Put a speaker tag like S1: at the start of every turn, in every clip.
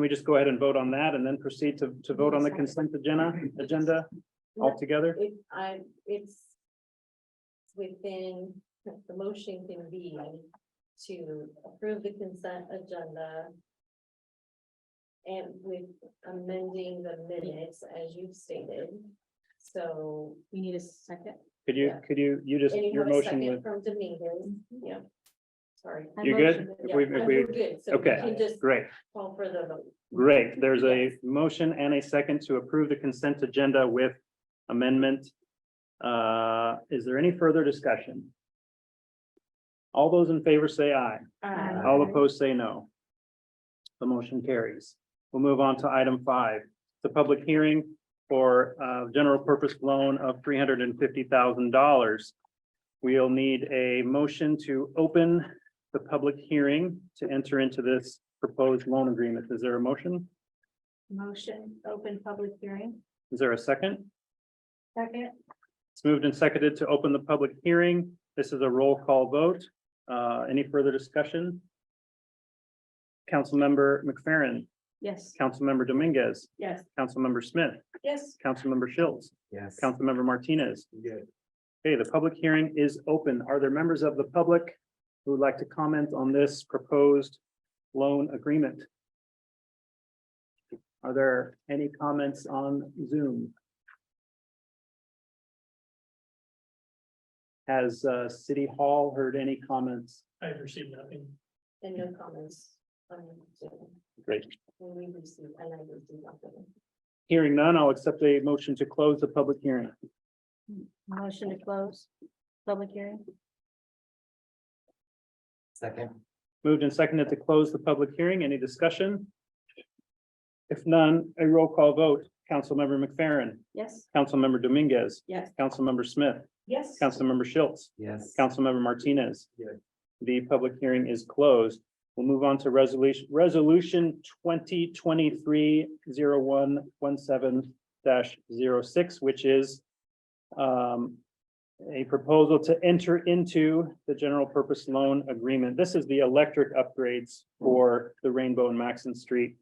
S1: we just go ahead and vote on that and then proceed to, to vote on the consent agenda, agenda altogether?
S2: It, I, it's within, the motion can be to approve the consent agenda. And with amending the minutes as you've stated, so.
S3: We need a second.
S1: Could you,
S2: Yeah.
S1: could you, you just, your
S2: anyone a
S1: motion
S2: second
S1: was,
S2: From Dominguez, yeah, sorry.
S3: I
S1: you good?
S3: motioned
S1: If we,
S2: Yeah,
S1: if we,
S2: we're good, so we
S1: okay.
S2: can just
S1: great,
S2: call for the vote.
S1: great. There's a
S2: Yes.
S1: motion and a second to approve the consent agenda with amendment. Uh, is there any further discussion? All those in favor say aye.
S3: Aye.
S1: All opposed say no. The motion carries. We'll move on to item five, the public hearing for uh general purpose loan of three hundred and fifty thousand dollars. We'll need a motion to open the public hearing to enter into this proposed loan agreement. Is there a motion?
S3: Motion, open public hearing.
S1: Is there a second?
S3: Second.
S1: It's moved and seconded to open the public hearing. This is a roll call vote. Uh, any further discussion? Councilmember McFerrin,
S3: Yes.
S1: Councilmember Dominguez,
S3: Yes.
S1: Councilmember Smith,
S3: Yes.
S1: Councilmember Schultz,
S4: Yes.
S1: Councilmember Martinez.
S4: Yeah.
S1: Okay, the public hearing is open. Are there members of the public who would like to comment on this proposed loan agreement? Are there any comments on Zoom? Has uh, City Hall heard any comments?
S5: I've received nothing.
S2: And no comments. on Zoom.
S1: Great.
S2: When we receive, and I received nothing.
S1: Hearing none, I'll accept a motion to close the public hearing.
S3: Motion to close public hearing.
S4: Second.
S1: Moved and seconded to close the public hearing. Any discussion? If none, a roll call vote. Councilmember McFerrin,
S3: Yes.
S1: Councilmember Dominguez,
S3: Yes.
S1: Councilmember Smith,
S3: Yes.
S1: Councilmember Schultz,
S4: Yes.
S1: Councilmember Martinez.
S4: Yeah.
S1: The public hearing is closed. We'll move on to resolution, resolution twenty twenty-three zero one one seven dash zero six, which is um, a proposal to enter into the general purpose loan agreement. This is the electric upgrades for the Rainbow and Maxon Street.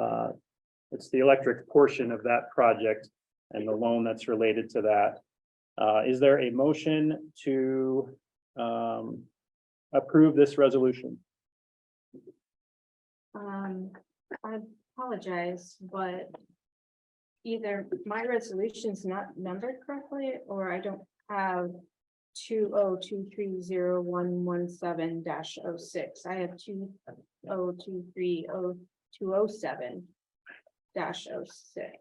S1: Uh, It's the electric portion of that project and the loan that's related to that. Uh, Is there a motion to um, approve this resolution?
S3: Um, I apologize, but either my resolution's not numbered correctly, or I don't have two oh two three zero one one seven dash oh six. I have two oh two three oh two oh seven dash oh six.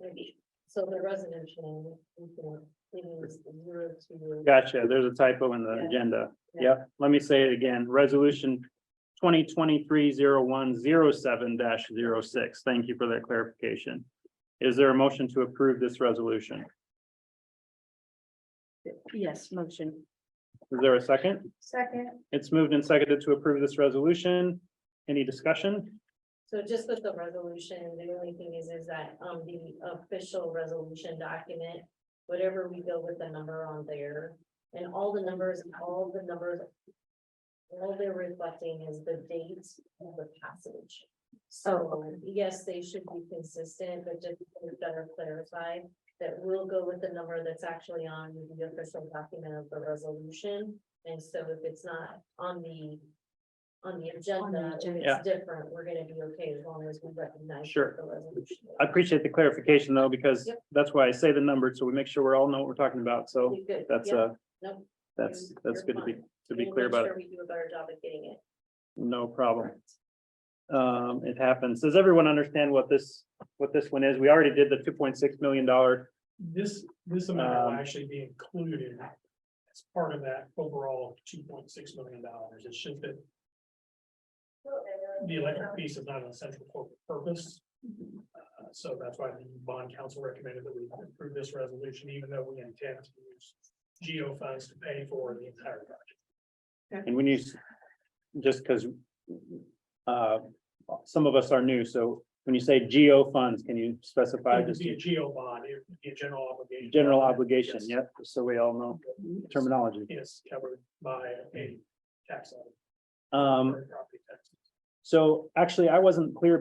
S2: Maybe, so the resolution, you can, it is zero to.
S1: Gotcha, there's a typo in the
S2: Yeah.
S1: agenda.
S2: Yeah.
S1: Yep, let me say it again, resolution 2023 twenty twenty-three zero one zero seven dash zero six. Thank you for that clarification. Is there a motion to approve this resolution?
S3: Yes, motion.
S1: Is there a second?
S3: Second.
S1: It's moved and seconded to approve this resolution. Any discussion?
S2: So just with the resolution, the only thing is, is that, um, the official resolution document, whatever we go with the number on there, and all the numbers, all the numbers, all they're reflecting is the date of the passage. So, yes, they should be consistent, but just to better clarify that we'll go with the number that's actually on the official document of the resolution. And so if it's not on the, on the agenda, if
S1: Yeah.
S2: it's different, we're gonna be okay as long as we recognize.
S1: Sure.
S2: The resolution.
S1: I appreciate the clarification though, because
S2: Yep.
S1: that's why I say the number, so we make sure we all know what we're talking about. So
S2: We good,
S1: that's
S2: yeah,
S1: uh
S2: no,
S1: that's,
S2: you're-
S1: that's
S2: you're
S1: good to be,
S2: fine.
S1: to be
S2: We'll
S1: clear
S2: make
S1: about it.
S2: sure We do a better job of getting it.
S1: No problem.
S2: correct.
S1: Um, it happens. Does everyone understand what this, what this one is? We already did the two point six million dollar.
S5: This, this amount will
S1: Um,
S5: actually be included as part of that overall two point six million dollars. It's just that the electric piece is not an essential corporate purpose. Uh, So that's why the bond council recommended that we approve this resolution, even though we intend to use geo funds to pay for the entire project.
S1: And when you, s- just because uh, some of us are new, so when you say geo funds, can you specify
S5: It would
S1: just
S5: be a geo bond, it would be a general obligation.
S1: general obligation?
S5: Yes.
S1: Yep, so we all know terminology.
S5: Is covered by a tax on
S1: Um,
S5: property tax.
S1: so Um, actually, I wasn't clear